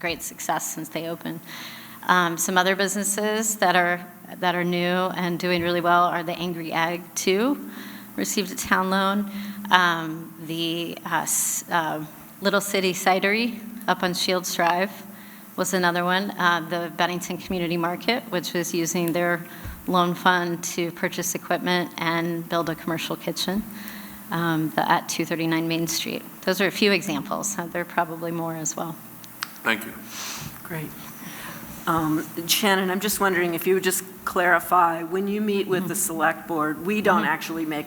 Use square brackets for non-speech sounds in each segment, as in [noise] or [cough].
great success since they opened. Um, Some other businesses that are, that are new and doing really well are the Angry Egg Two, received a town loan. Um, The uh, s- uh, Little City Cidery up on Shields Drive was another one. Uh, The Bennington Community Market, which was using their loan fund to purchase equipment and build a commercial kitchen um, the- at 239 Main Street. Those are a few examples. Uh, There are probably more as well. Thank you. Great. Um, Shannon, I'm just wondering if you would just clarify, when you meet with Mm-hmm. the select board, we don't actually make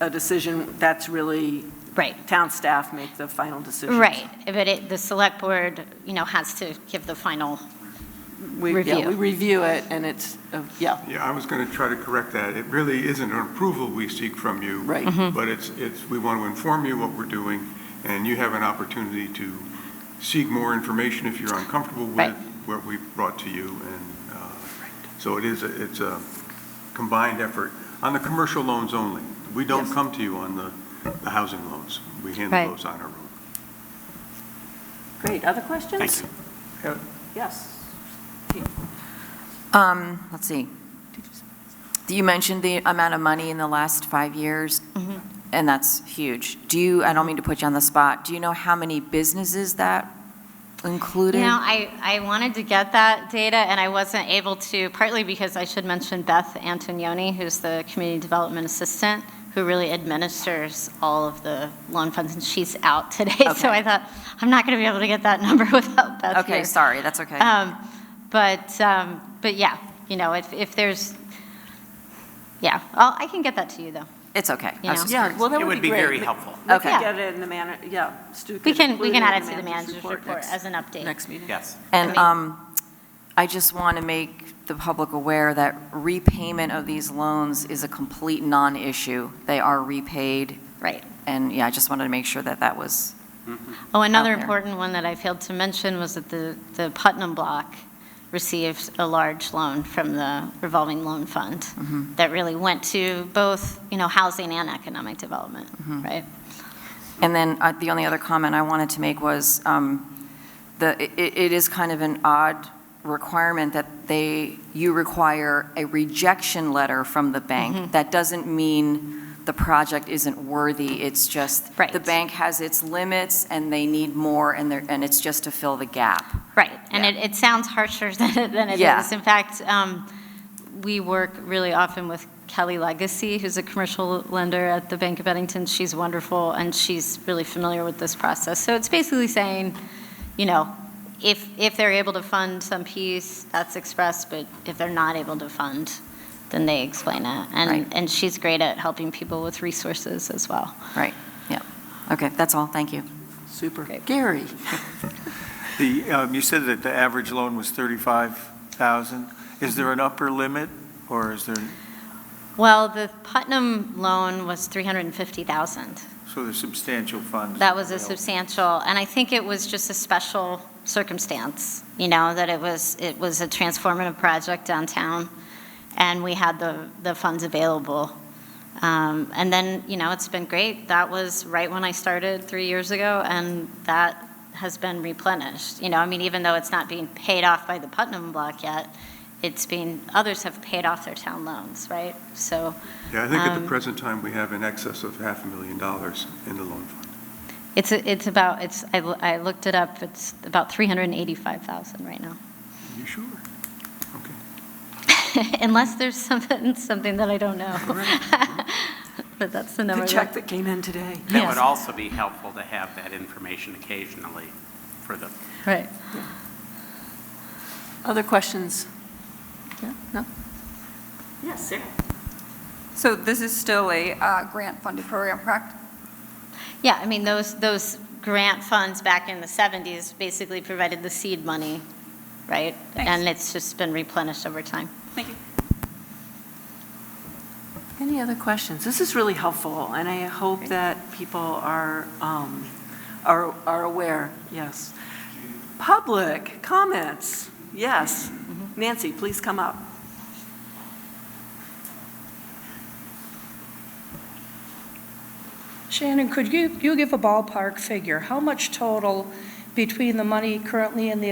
a decision, that's really, Right. town staff make the final decision. Right, but it, the select board, you know, has to give the final, Yeah, Review. we review it, and it's, uh, yeah, Yeah, I was going to try to correct that. It really isn't an approval we seek from you. Right. But it's, it's, we want to inform you what we're doing, and you have an opportunity to seek more information if you're uncomfortable with Right. what we brought to you. And uh, so it is, a- it's a combined effort on the commercial loans only. We don't Yes. come to you on the the housing loans. We handle Right. those on our own. great. Other questions? Thank you. Yes. Um, let's see. You mentioned the amount of money in the last five years, Mm-hmm. and that's huge. Do you, I don't mean to put you on the spot, do you know how many businesses that included? You know, I, I wanted to get that data, and I wasn't able to, partly because I should mention Beth Antonioni, who's the Community Development Assistant, who really administers all of the loan funds, and she's out today. [laughs] So Okay. I thought, I'm not going to be able to get that [laughs] number without Beth here. Okay, sorry, that's okay. Um, But, um, but yeah, you know, if, if there's, yeah, I'll- I can get that to you, though. It's okay. I you was know. just Yeah, well, that It would be great. very helpful. We could Okay. get it in the manner, yeah, Stu could We can, we include can it in add it to the manager's report next- as an update. Next meeting. Yes. I And mean- um, I just want to make the public aware that repayment of these loans is a complete non-issue. They are repaid, Right. and yeah, I just wanted to make sure that that was, Oh, another out there. important one that I failed to mention was that the, the Putnam Block received a large loan from the revolving loan fund Mm-hmm. that really went to both, you know, housing and economic development, Mm-hmm. right? And then uh, the only other comment I wanted to make was, um, the, i- i- it is kind of an odd requirement that they, you require a rejection letter from the bank. That doesn't mean the project isn't worthy, it's just, Right. the bank has its limits, and they need more, and they're, and it's just to fill the gap. Right, and Yeah. it, it sounds harsher [laughs] than it, than it Yeah. is. In fact, um, we work really often with Kelly Legacy, who's a commercial lender at the Bank of Bennington. She's wonderful, and she's really familiar with this process. So it's basically saying, you know, if, if they're able to fund some piece, that's expressed, but if they're not able to fund, then they explain it. Right. And, and she's great at helping people with resources as well. Right, yeah. Okay, that's all, thank you. Super. Great. Gary? The, um, you said that the average loan was 35,000. Is there an upper limit, or is there, Well, the Putnam loan was 350,000. so there's substantial funds? That was a available? substantial, and I think it was just a special circumstance, you know, that it was, it was a transformative project downtown, and we had the, the funds available. Um, And then, you know, it's been great. That was right when I started three years ago, and that has been replenished. You know, I mean, even though it's not being paid off by the Putnam block yet, it's being, others have paid off their town loans, right? So Yeah, I think at Um, the present time, we have in excess of half a million dollars in the loan fund. it's, a- it's about, it's, I loo- I looked it up, it's about 385,000 right now. [laughs] You sure? Okay. Unless there's something, something that I don't know. [laughs] But that's the number. The that- check that came in today. Yes. That would also be helpful to have that information occasionally for the Right. Other questions? Yeah, no? Yes, Sarah. So this is still a uh, grant-funded program, correct? Yeah, I mean, those, those grant funds back in the 70s basically provided the seed money, right? Thanks. And it's just been replenished over time. Thank you. Any other questions? This is really helpful, and I hope that people are, um, are are aware, yes. Public comments, yes. Nancy, please come up. Shannon, could you, you give a ballpark figure? How much total between the money currently in the